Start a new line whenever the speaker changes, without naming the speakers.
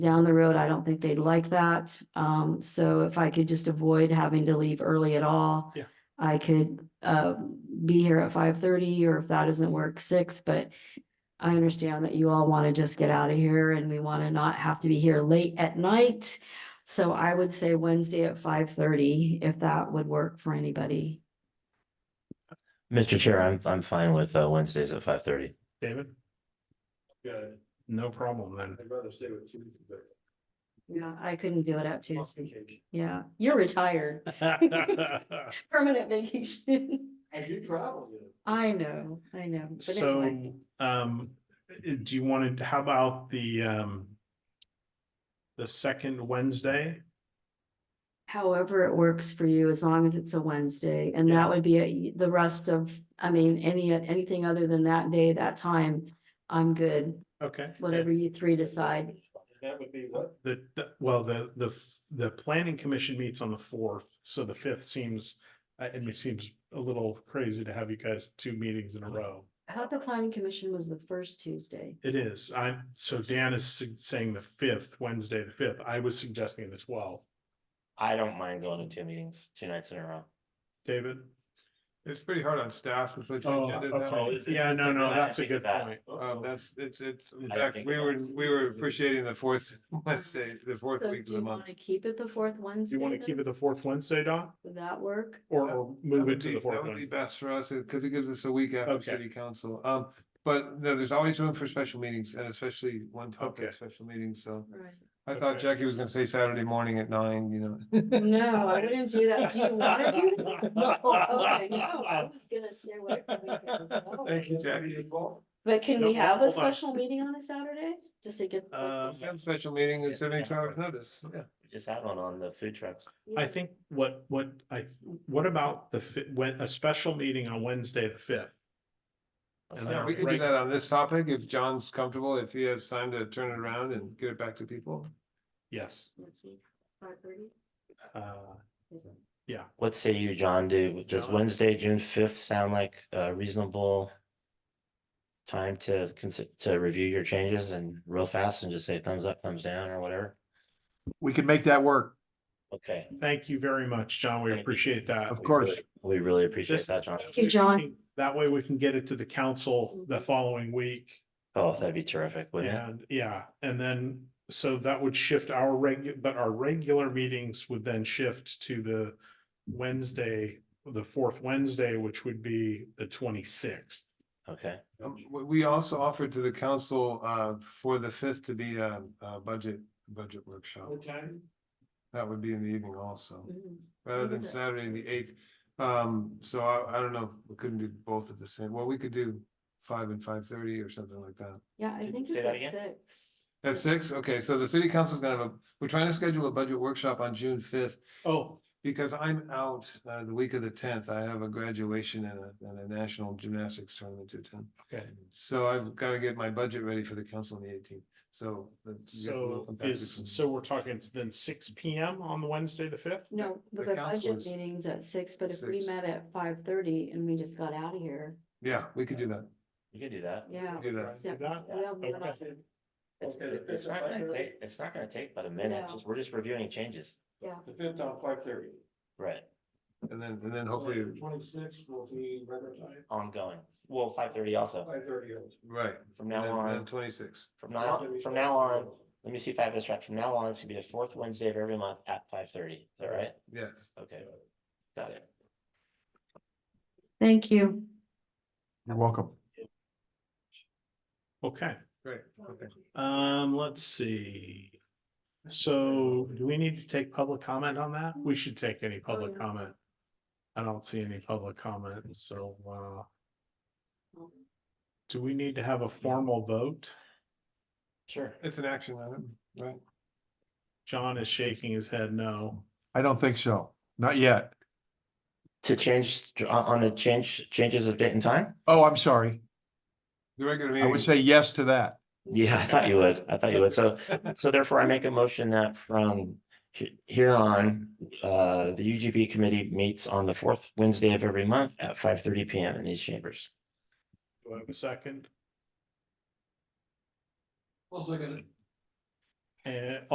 down the road, I don't think they'd like that. Um, so if I could just avoid having to leave early at all.
Yeah.
I could, uh, be here at five thirty, or if that doesn't work, six, but I understand that you all want to just get out of here and we want to not have to be here late at night. So I would say Wednesday at five thirty, if that would work for anybody.
Mr. Chair, I'm, I'm fine with uh, Wednesdays at five thirty.
David?
Good.
No problem then.
I'd rather stay with you. but-
Yeah, I couldn't do it at Tuesday. Yeah, you're retired, permanent vacation.
I do travel, you know.
I know, I know. but anyway.
So, um, i- do you want to, how about the, um, the second Wednesday?
However it works for you, as long as it's a Wednesday, and
Yeah.
that would be a- the rest of, I mean, any, anything other than that day, that time. I'm good,
Okay.
whatever you three decide.
That would be what?
The, the- well, the, the, f- the planning commission meets on the fourth, so the fifth seems, uh, it me- seems a little crazy to have you guys two meetings in a row.
I thought the planning commission was the first Tuesday.
It is, I, so Dan is su- saying the fifth, Wednesday, the fifth. I was suggesting the twelfth.
I don't mind going to two meetings, two nights in a row.
David?
It's pretty hard on staff. with what you
Oh,
did, isn't it?
okay.
it's-
Yeah, no, no,
I
that's a
think
good
that-
point.
Um, that's, it's, it's, in
I didn't
fact,
think
we
about
were,
it.
we were appreciating the fourth, let's say, the fourth
So
week
do
of the
you
month.
want to keep it the fourth Wednesday?
You want to keep it the fourth Wednesday, Don,
Would that work?
or
That-
or
That
move it
would
to
be,
the
that
fourth
would be
Wednesday?
best for us, because it gives us a week after
Okay.
city council. Um, but no, there's always room for special meetings and especially one
Okay.
topic, special meetings, so.
Right.
I thought
Okay.
Jackie was gonna say Saturday morning at nine, you know.
No, I wouldn't do that. Do you want to do? that? Okay, no, I was gonna stay away from weekends. No.
Thank you, Jackie.
But can
No,
we have
hold
a
on.
special meeting on a Saturday, just to get?
Um,
Some special meeting at
Yeah.
seventy hours notice, yeah.
We Just had one on the food trucks.
I think what, what I, what about the, fi- when, a special meeting on Wednesday, the fifth?
That's
And
fine.
then
We can do
Right.
that on this topic if John's comfortable, if he has time to turn it around and get it back to people.
Yes.
Five thirty?
Uh,
What say you, John? Do, does
John?
Wednesday, June fifth sound like a reasonable time to consider, to review your changes and real fast and just say thumbs up, thumbs down or whatever?
We can make that work.
Okay.
Thank you very much, John. We
Thank you.
appreciate that.
Of course.
We really appreciate
This-
that, John.
you, John. Mm-hmm.
We can- That way we can get it to the council the following week.
Oh, that'd be terrific, wouldn't it?
And, yeah, and then, so that would shift our reg, but our regular meetings would then shift to the Wednesday, the fourth Wednesday, which would be the twenty-sixth.
Okay.
Um, We, we also offered to the council, uh, for the fifth to be a, a budget, budget workshop.
time?
That would be in the evening also,
Mm-hmm.
rather
What
than
is it?
Saturday the eighth. Um, so I, I don't know, we couldn't do both at the same, well, we could do five and five thirty or something like that.
Yeah, I
Did-
think
say
it's
that
at
again?
six.
At six, okay, so the city council's gonna have a, we're trying to schedule a budget workshop on June fifth.
Oh,
Because I'm out uh the week of the tenth, I have a graduation and a and a national gymnastics tournament to attend.
okay.
So I've got to get my budget ready for the council on the eighteenth, so. that's- you have to
So
welcome back
is,
to-
so we're talking it's then six P M on the Wednesday, the fifth?
No,
the
but the budget
council's
meeting's at six, but if we
six.
met at five thirty and we just got out of here,
Yeah, we could do that.
You could do that.
yeah.
Do that.
so-
that?
yeah, we
Okay.
have-
It's,
Okay, the
it- it's
fifth at
not gonna
5:30?
take, it's not gonna take but a minute,
No.
just, we're just reviewing changes,
The fifth on five thirty.
right,
And then and then hopefully,
Twenty-six will be regular time,
ongoing, well, five thirty also,
five thirty.
right.
from now on,
Twenty six.
from now, on- from now on. Let me see if I have this right, from now on, it's gonna be the fourth Wednesday of every month at five thirty, is that right?
Yes.
Okay, got it.
Thank you.
You're welcome.
Okay,
Great. Okay.
um, let's see. So do we need to take public comment on that? We should take any public
Oh, yeah.
comment. I don't see any public comment, so, uh, do we need to have a formal vote?
Sure.
It's an action item, right?
John is shaking his head no.
I don't think so. Not yet.
To change, on, on the change, changes of date and time?
Oh, I'm sorry.
The regular
I
meeting.
would say yes to that.
Yeah, I thought you would, I thought you would, so, so therefore I make a motion that from he- here on, uh, the UGB committee meets on the fourth Wednesday of every month at five thirty P M in these chambers.
Do I have a second?
Also gonna.
And